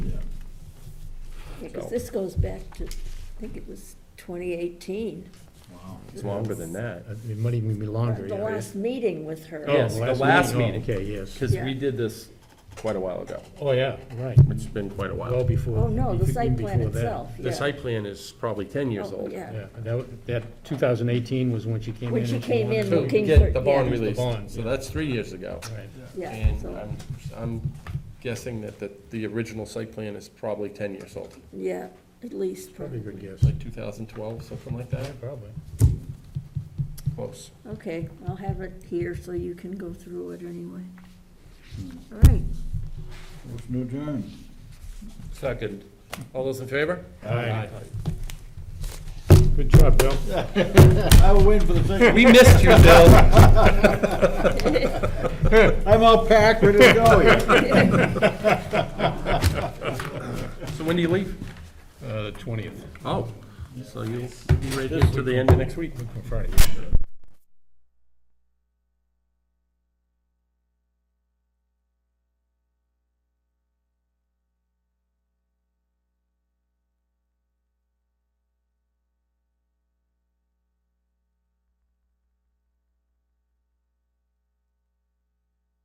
because So- this goes back to, I think it was 2018. Wow. It's longer than that. It might even be longer, The yeah. last meeting with her. Oh, Yes, the last meeting. Oh, Okay, yes. Because we Yeah. did this quite a while ago. Oh, yeah, right. It's been quite a Well while. before. Oh, no, the even site plan before that. itself, yeah. The site plan is probably 10 years Oh, old. yeah. Yeah, that, wa- that 2018 was when she came in. When she and came wanted in to- To looking for- get the yeah. bond The released. bond, So yeah. that's three years ago. Right. Yeah, And so, I'm, I'm guessing that, that the original site plan is probably 10 years old, yeah, at least, Probably a good guess. like 2012, something like that, Probably. close. okay, I'll have it here so you can go through it anyway. All right, Motion to adjourn. Second. All those in favor? Aye. Good job, Bill. I will wait for the second. We missed you, Bill. I'm all packed, ready to go here. So when do you leave? Uh, The 20th, Oh, so you'll be right here to the end of next week. on Friday.